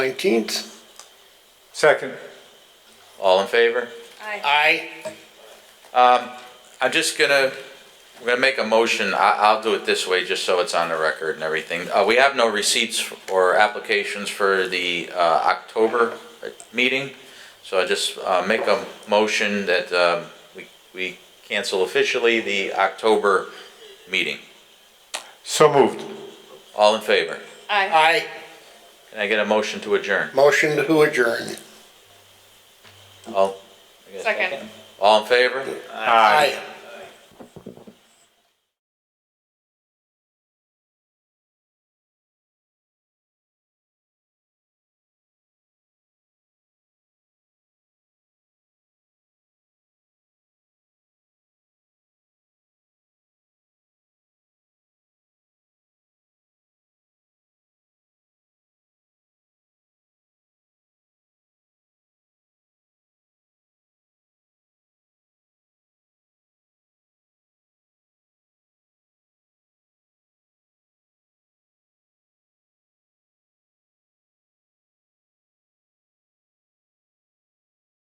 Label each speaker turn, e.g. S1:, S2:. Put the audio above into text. S1: 19th.
S2: Second.
S3: All in favor? Um,
S1: Aye.
S3: I'm just gonna, we're gonna make a motion, I, I'll do it this way, just so it's on the record and everything. Uh, we have no receipts or applications for the, uh, October uh, meeting. So I just, uh, make a motion that, um, we, we cancel officially the October meeting.
S2: So moved.
S3: All in favor?
S4: Aye.
S1: Aye.
S3: Can I get a motion to adjourn?
S1: Motion to adjourn.
S3: All. I get a
S4: Second.
S3: All in favor?
S2: Aye.
S1: Aye.